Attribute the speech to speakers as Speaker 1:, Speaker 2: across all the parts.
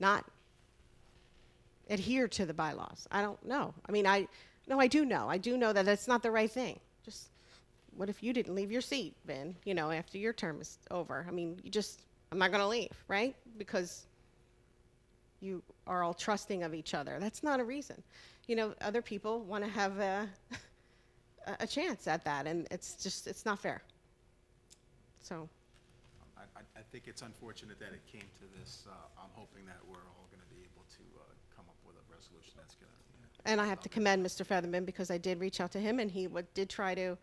Speaker 1: not adhere to the bylaws. I don't know. I mean, I, no, I do know. I do know that that's not the right thing. Just, what if you didn't leave your seat, Ben, you know, after your term is over? I mean, you just, I'm not going to leave, right? Because you are all trusting of each other. That's not a reason. You know, other people want to have a, a- a chance at that, and it's just, it's not fair. So,
Speaker 2: I, I- I think it's unfortunate that it came to this. Uh, I'm hoping that we're all going to be able to uh, come up with a resolution that's going to,
Speaker 1: and I have to commend Mr. Featherman because I did reach out to him, and he wa- did try to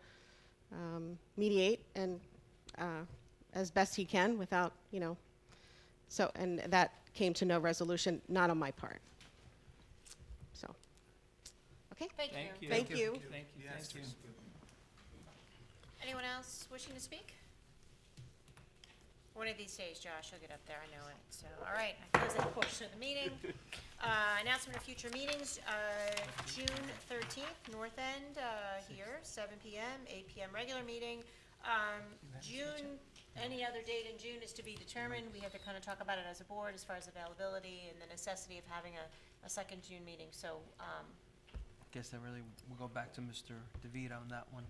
Speaker 1: um, mediate and uh, as best he can without, you know, so, and that came to no resolution, not on my part. So, okay.
Speaker 3: Thank
Speaker 4: Thank
Speaker 3: you.
Speaker 4: you.
Speaker 1: Thank you.
Speaker 4: Thank you, thank you.
Speaker 3: Anyone else wishing to speak? One of these days, Josh, you'll get up there, I know it. So, all right, I close that portion of the meeting. Uh, Announcement of future meetings, uh, June thirteenth, North End, uh, here, seven PM, eight PM regular meeting. Um, June, any other date in June is to be determined. We have to kind of talk about it as a board as far as availability and the necessity of having a, a second June meeting. So, um,
Speaker 5: Guess I really, we'll go back to Mr. DeVito on that one.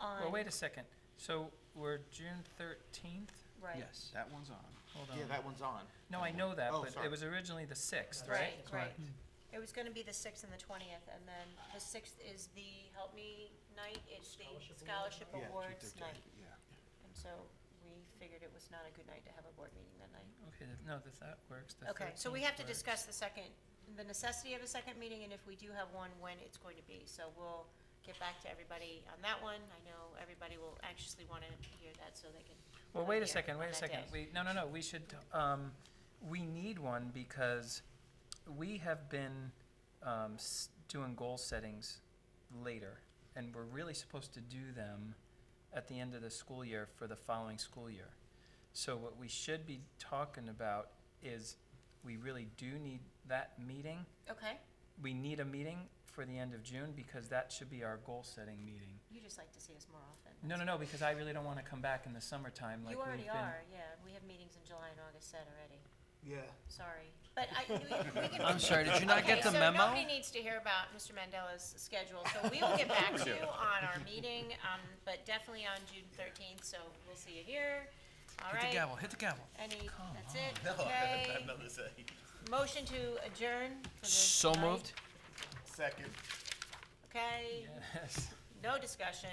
Speaker 3: on,
Speaker 4: Well, wait a second. So we're June thirteenth?
Speaker 3: right,
Speaker 5: Yes.
Speaker 2: that one's on.
Speaker 4: Hold
Speaker 6: Yeah,
Speaker 4: on.
Speaker 6: that one's on.
Speaker 4: No, I know that,
Speaker 6: Oh,
Speaker 4: but
Speaker 6: sorry.
Speaker 4: it was originally the sixth,
Speaker 3: right,
Speaker 4: right?
Speaker 3: right. It was gonna be the sixth and the twentieth, and then the sixth is the, help me, night, it's the scholarship
Speaker 2: Yeah, June
Speaker 3: awards
Speaker 2: 13th,
Speaker 3: night.
Speaker 2: Yeah.
Speaker 3: And so we figured it was not a good night to have a board meeting that night.
Speaker 4: Okay, th- no, that, that works. The
Speaker 3: Okay, so we
Speaker 4: 13th
Speaker 3: have to
Speaker 4: works.
Speaker 3: discuss the second, the necessity of a second meeting, and if we do have one, when it's going to be. So we'll get back to everybody on that one. I know everybody will anxiously wanna hear that so they can.
Speaker 4: Well,
Speaker 3: come
Speaker 4: wait a
Speaker 3: here
Speaker 4: second,
Speaker 3: on
Speaker 4: wait a
Speaker 3: that
Speaker 4: second.
Speaker 3: day.
Speaker 4: We, no, no, no, we should, um, we need one because we have been, um, s- doing goal settings later. And we're really supposed to do them at the end of the school year for the following school year. So what we should be talking about is we really do need that meeting.
Speaker 3: Okay,
Speaker 4: We need a meeting for the end of June because that should be our goal setting meeting.
Speaker 3: you just like to see us more often.
Speaker 4: No, no, no, because I really don't wanna come back in the summertime like
Speaker 3: You
Speaker 4: we've been.
Speaker 3: already are, yeah. We have meetings in July and August set already.
Speaker 6: Yeah.
Speaker 3: Sorry, but I, we we can.
Speaker 5: I'm sorry, did you not get the
Speaker 3: Okay, so
Speaker 5: memo?
Speaker 3: nobody needs to hear about Mr. Mandela's schedule, so we will get back to you on our meeting, um, but definitely on June thirteenth, so we'll see you here. All
Speaker 5: Hit the
Speaker 3: right,
Speaker 5: gavel, hit the gavel.
Speaker 3: any, that's it, okay. Motion to adjourn for the
Speaker 5: So
Speaker 3: night,
Speaker 5: moved.
Speaker 6: Second.
Speaker 3: Okay,
Speaker 4: Yes.
Speaker 3: no discussion.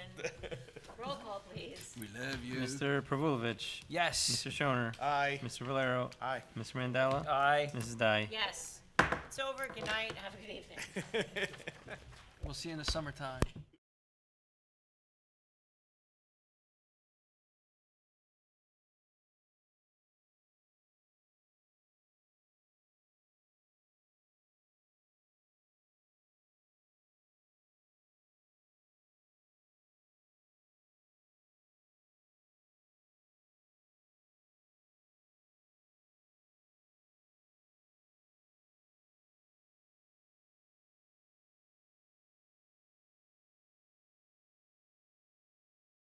Speaker 3: Roll call, please.
Speaker 5: We love
Speaker 7: Mr. Pravulovich,
Speaker 5: Yes.
Speaker 7: Mr. Shoner,
Speaker 6: Aye.
Speaker 7: Mr. Valero,
Speaker 6: Aye.
Speaker 7: Mr. Mandela,
Speaker 4: Aye.
Speaker 7: Mrs. Dai.
Speaker 3: Yes, it's over, good night, have a good evening.
Speaker 5: We'll see you in the summertime.